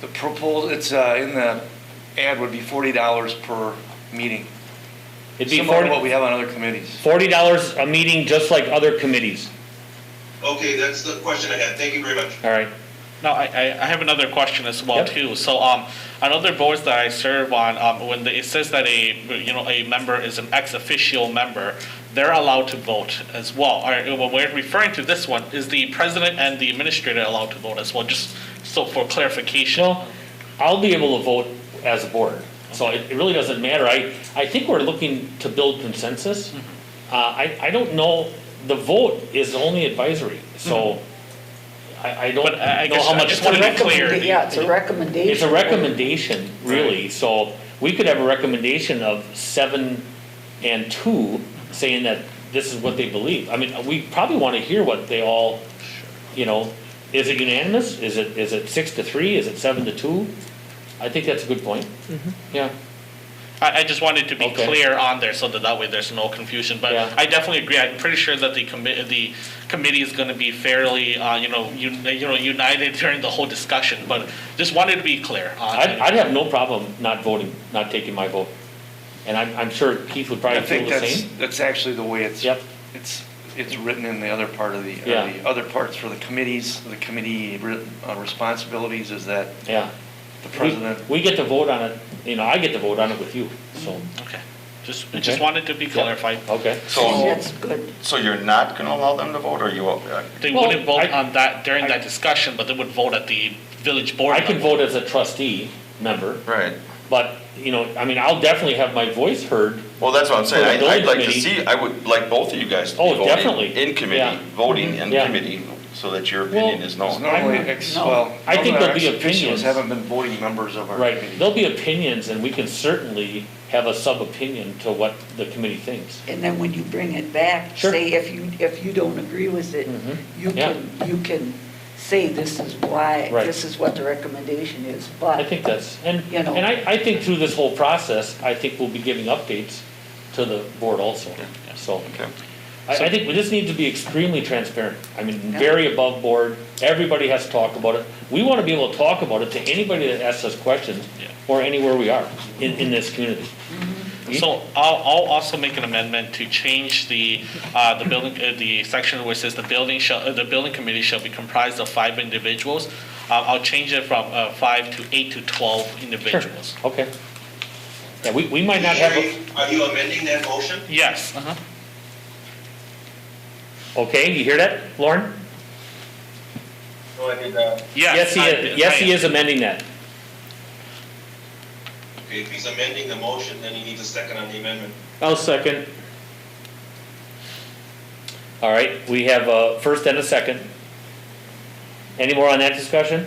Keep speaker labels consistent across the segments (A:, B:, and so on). A: The proposal, it's, uh, in the ad would be forty dollars per meeting.
B: It'd be
A: Similar to what
B: forty
A: we have on other committees.
B: dollars a meeting, just like other committees.
C: Okay, that's the question I had. Thank you very much.
B: All right.
D: No, I, I I have another question as well
B: Yep.
D: too. So um, on other boards that I serve on, um, when they, it says that a you know a member is an ex officio member, they're allowed to vote as well. All right, well, we're referring to this one. Is the president and the administrator allowed to vote as well? Just so for clarification.
B: Well, I'll be able to vote as a board, so it, it really doesn't matter. I, I think we're looking to build consensus. Uh,
D: Mm-hmm.
B: I, I don't know, the vote is only advisory, so I, I don't
D: Mm-hmm. But I- I
B: know
D: guess
B: how
D: I
B: much.
D: just wanna be
B: recommend-
D: clear.
E: Recommenda- Yeah, it's a recommendation.
B: It's a recommendation, really, so we could have a recommendation of seven and two saying that this is what they believe. I mean, we probably wanna hear what they all, you know, is it unanimous? Is it, is it six to three? Is it seven to two? I think that's a good point.
A: Mm-hmm.
B: Yeah,
D: I, I just wanted to be
B: Okay.
D: clear on there so that that way there's no confusion. But
B: Yeah.
D: I definitely agree. I'm pretty sure that the committee the committee is going to be fairly uh, you know you, you know united during the whole discussion. But just wanted to be clear. On
B: I'd, I'd have no problem not voting, not taking my vote. And I'm, I'm sure Keith would
A: I
B: probably feel
A: think
B: the
A: that's,
B: same.
A: that's actually the way it's,
B: Yep.
A: it's, it's written in the other part of the, or
B: Yeah.
A: the other parts for the committees, the committee re- uh, responsibilities is that
B: Yeah.
A: the
B: We-
A: president,
B: We get to vote on it, you know, I get to vote on it with you, so,
D: Okay. Just I
B: Okay.
D: just wanted to be clarified.
B: okay.
F: So,
E: That's good.
F: so you're not going to allow them to vote, or you, uh,
D: They
B: Well,
D: wouldn't vote
B: I-
D: on that during
B: I-
D: that discussion, but they would vote at the village board.
B: I can
D: level.
B: vote as a trustee member,
F: right?
B: but, you know, I mean, I'll definitely have my voice heard.
F: Well, that's what I'm
B: For the
F: saying. I-
B: building
F: I'd like to
B: committee.
F: see, I would like both of you guys to be
B: Oh,
F: voting
B: definitely.
F: in
B: Yeah.
F: committee, voting in
B: Yeah.
F: committee, so that your opinion
B: Well,
F: is
A: is
F: known.
A: normally,
B: Oh, I'm-
A: ex-
E: no.
A: well.
B: I think
A: normally our
B: there'll be
A: ex officios
B: opinions.
A: Haven't been voting members of our
B: Right,
A: committees.
B: there'll be opinions, and we can certainly have a sub-opinion to what the committee thinks.
E: And then when you bring it back,
B: Sure.
E: say if you, if you don't agree with it,
B: Mhm.
E: you
B: Yeah.
E: can, you can say this is why,
B: Right.
E: this is what the recommendation is,
B: I
E: but
B: think that's, and,
E: You know.
B: and I, I think through this whole process, I think we'll be giving updates to the board also, so.
F: Okay.
B: I, I think we just need to be extremely transparent. I mean,
E: Yeah.
B: very above board. Everybody has to talk about it. We want to be able to talk about it to anybody that asks us questions
D: Yeah.
B: or anywhere we are in, in this community.
D: So I'll, I'll also make an amendment to change the, uh, the building, uh, the section where it says the building shall, uh, the building committee shall be comprised of five individuals. Uh, I'll change it from, uh, five to eight to twelve individuals.
B: Okay. Yeah, we, we might not have, a-
C: Sherry, Are you amending that motion?
D: Yes, uh-huh.
B: okay, you hear that, Lauren?
C: No, I did not.
D: yes.
B: Yes, he
D: I-
B: is, yes,
D: I
B: he
D: am.
B: is amending that.
C: Okay, if he's amending the motion, then he needs a second on the amendment.
B: I'll second. All right, we have a first and a second. Any more on that discussion?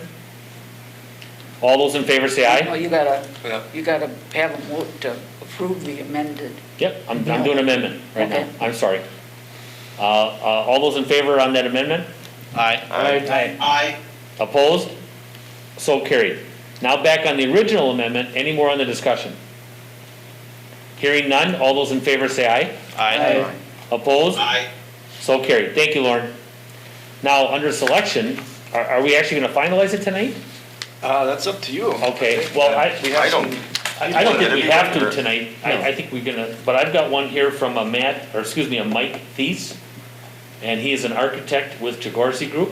B: All those in favor say
E: you
B: aye.
E: know, you gotta,
A: Yeah.
E: you gotta have them vote to approve the amended.
B: Yep, I'm, I'm doing amendment right now,
E: Okay.
B: I'm sorry. Uh, uh, all those in favor on that amendment?
D: Aye.
F: Aye.
C: Aye.
B: Opposed? So carried. Now back on the original amendment, any more on the discussion? Hearing none, all those in favor say aye.
D: Aye.
B: Opposed?
C: Aye.
B: So carried, thank you, Lauren. Now, under selection, are, are we actually gonna finalize it tonight?
A: Uh, that's up to you.
B: Okay, well, I,
A: We
F: I
A: have
F: don't,
A: some-
B: I I don't think we have to
F: Either.
B: tonight, I, I think we're gonna, but I've got one here from a Matt, or excuse me, a Mike Thies, and he is an architect with Jagorsey Group,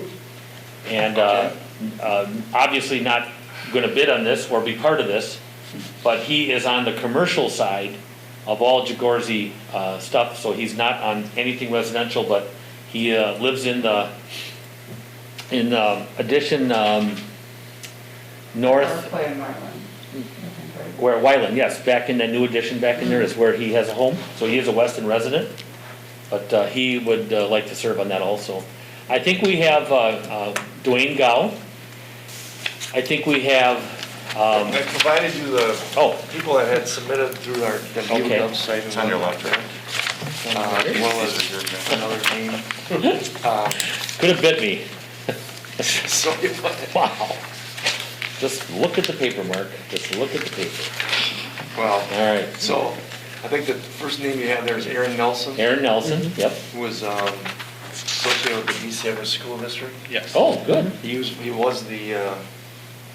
B: and, uh, uh, obviously not gonna bid on this or be part of this, but he is on the commercial side of all Jagorsey, uh, stuff, so he's not on anything residential, but he, uh, lives in the, in, um, addition, um, north Mm. where Wyland, yes, back in the new addition back in there is where he has a home, so he is a Weston resident. But uh, he would uh, like to serve on that also. I think we have uh, uh, Dwayne Gow. I think we have, um,
A: I provided you the
B: oh,
A: people that had submitted through our W
B: Okay.
A: website.
F: It's on your left, right?
A: Uh, As well as
F: These are yours, man.
A: another name.
B: could have bit me,
A: So you want-
B: wow. Just look at the paper, Mark, just look at the paper.
A: Well,
B: All right,
A: so I think the first name you have there is Aaron Nelson,
B: Aaron Nelson, yep.
A: who was um, associated with the East Everett School District.
D: Yes.
B: Oh, good,
A: He was, he was the uh,